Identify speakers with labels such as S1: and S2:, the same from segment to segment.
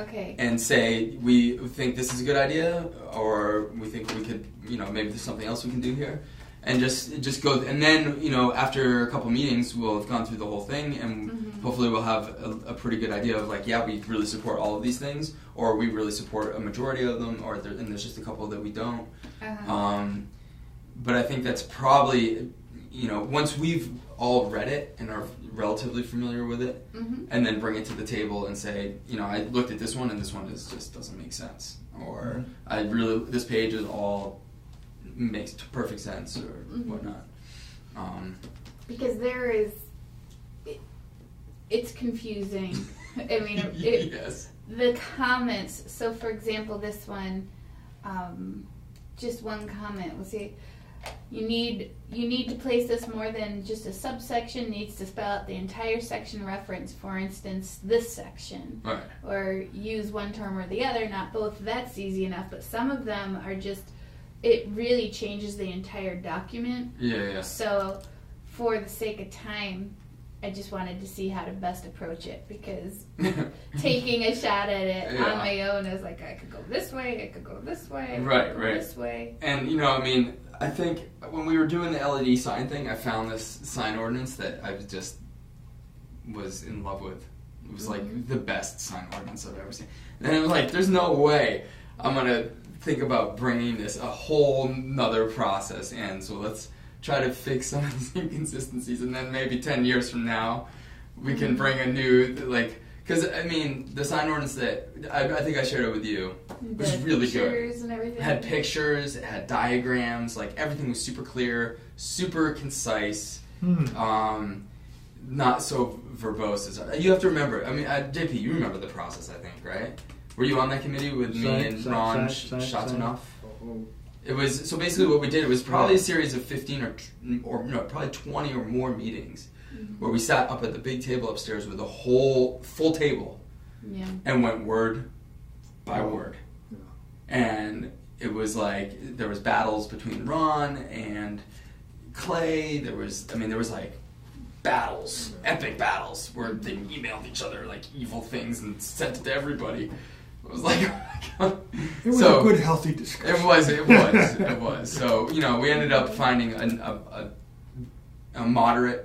S1: Okay.
S2: and say we think this is a good idea or we think we could you know maybe there's something else we can do here and just just go and then you know after a couple meetings we'll have gone through the whole thing and hopefully we'll have a, a pretty good idea of like yeah we really support all of these things or we really support a majority of them or there, and there's just a couple that we don't
S1: Uh-huh.
S2: um, but I think that's probably, you know, once we've all read it and are relatively familiar with it,
S1: Mhm.
S2: and then bring it to the table and say, you know, I looked at this one and this one is just doesn't make sense, or I really this page is all makes t- perfect sense or
S1: Mm-hmm.
S2: whatnot. Um,
S1: because there is, it, it's confusing. I mean, it,
S2: yes.
S1: the comments. So, for example, this one, um, just one comment. We'll see. You need you need to place this more than just a subsection. Needs to spell out the entire section reference. For instance, this section,
S2: All right.
S1: or use one term or the other, not both. That's easy enough. But some of them are just. It really changes the entire document.
S2: Yeah. Yeah.
S1: So, for the sake of time, I just wanted to see how to best approach it because
S2: yeah.
S1: taking a shot at it
S2: Yeah.
S1: on my own. I was like, I could go this way, I could go this way, I could
S2: Right,
S1: go
S2: right.
S1: this way.
S2: And you know, I mean, I think when we were doing the LED sign thing, I found this sign ordinance that I was just was in love with. It was like the best sign ordinance I've ever seen. And I'm like, there's no way I'm gonna think about bringing this a whole nother process in. So let's try to fix some of these inconsistencies, and then maybe ten years from now, we can bring a new like. Because I mean, the sign ordinance that I, I think I shared it with you was
S1: The
S2: really good.
S1: pictures and everything.
S2: It had pictures, it had diagrams, like everything was super clear, super concise,
S3: Uh,
S2: um, not so verbose. As, you have to remember, I mean, uh, JP, you remember the process, I think, right? Were you on that committee with
S3: Sign-
S2: me and
S3: sign-
S2: Ron
S3: sign-
S2: Sh-
S3: sign-
S2: Shatanoff?
S3: Oh,
S2: It was so basically what we did was probably a series of fifteen or t- or no, probably twenty or more meetings where we sat up at the big table upstairs with a whole full table
S1: Yeah.
S2: and went word by word.
S3: Yeah.
S2: And it was like there was battles between Ron and Clay. There was I mean there was like battles, epic battles where they emailed each other like evil things and sent it to everybody. It was like
S3: It was
S2: so,
S3: a good, healthy discussion.
S2: it was. It was. it was. So you know, we ended up finding an, a, a a moderate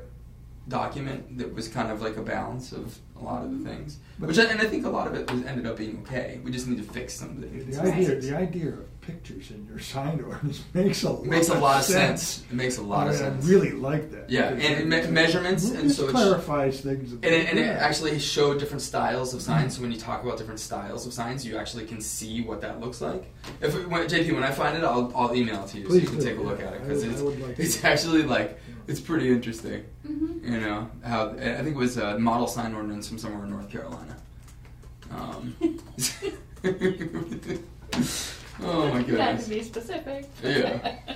S2: document that was kind of like a balance of a lot of the things. Which I, and I think a lot of it was ended up being okay. We just need to fix some of the
S3: The idea,
S2: inconsistencies.
S3: the idea of pictures in your sign ordinance makes a lot
S2: It makes a lot of sense.
S3: sense.
S2: It makes a lot of
S3: I mean,
S2: sense.
S3: I really like that.
S2: Yeah,
S3: because
S2: and
S3: it-
S2: me- measurements,
S3: it
S2: and so
S3: just
S2: it's-
S3: clarifies things. a
S2: And
S3: bit,
S2: it, and it
S3: yeah. Mm-hmm.
S2: actually showed different styles of signs. So when you talk about different styles of signs, you actually can see what that looks like. If when, JP, when I find it, I'll, I'll email it to you so
S3: Please
S2: you
S3: do,
S2: can take a look
S3: yeah.
S2: at it
S3: I
S2: because
S3: would- I
S2: it's
S3: would like to.
S2: it's actually like it's pretty interesting.
S1: Mm-hmm.
S2: You know how I think it was a model sign ordinance from somewhere in North Carolina. Um, oh my
S1: Not
S2: goodness.
S1: to be specific.
S2: Yeah.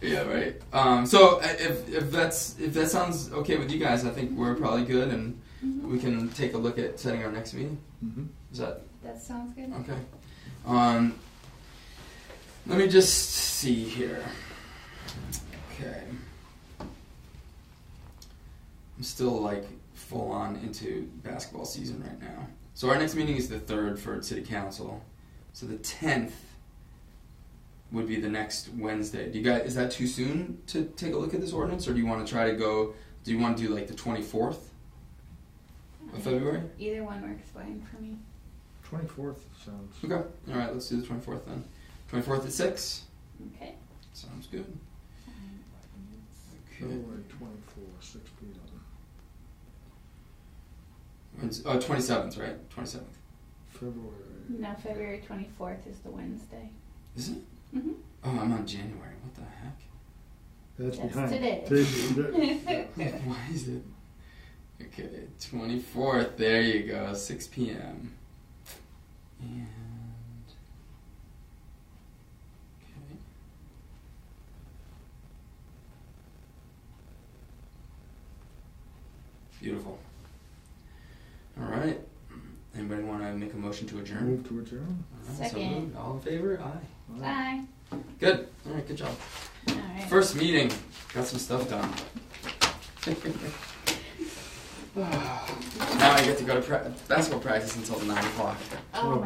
S2: Yeah, right. Um, so I- if, if that's if that sounds okay with you guys, I think we're probably good, and we can take a look at setting our next meeting.
S3: Mhm.
S2: Is that
S1: That sounds good.
S2: okay? Um, let me just see here. Okay, I'm still like full on into basketball season right now. So our next meeting is the third for city council. So the tenth would be the next Wednesday. Do you guys is that too soon to take a look at this ordinance, or do you want to try to go? Do you want to do like the twenty fourth of uh, February?
S1: Either one works fine for me.
S3: 24th sounds.
S2: Okay. All right. Let's do the twenty fourth then. Twenty fourth at six.
S1: Okay.
S2: Sounds good. Okay.
S3: February 24th, 6 p.m.
S2: When's, oh, 27th, right? Twenty seventh.
S3: February.
S1: Now February twenty fourth is the Wednesday.
S2: Is it?
S1: hmm
S2: Oh, I'm on January. What the heck?
S3: That's
S1: That's
S3: behind.
S1: today.
S3: Today.
S2: Why is it? Okay, 24th. There you go, 6 p.m. And. Okay. Beautiful. All right. Anybody want to make a motion to adjourn?
S3: Move to adjourn.
S2: All right, so
S1: Second.
S2: moved. All in favor? Aye.
S3: All right.
S1: Bye.
S2: Good. All right, good job.
S1: All right.
S2: First meeting. Got some stuff done. Now I get to go to pra- basketball practice until nine o'clock.
S1: Oh,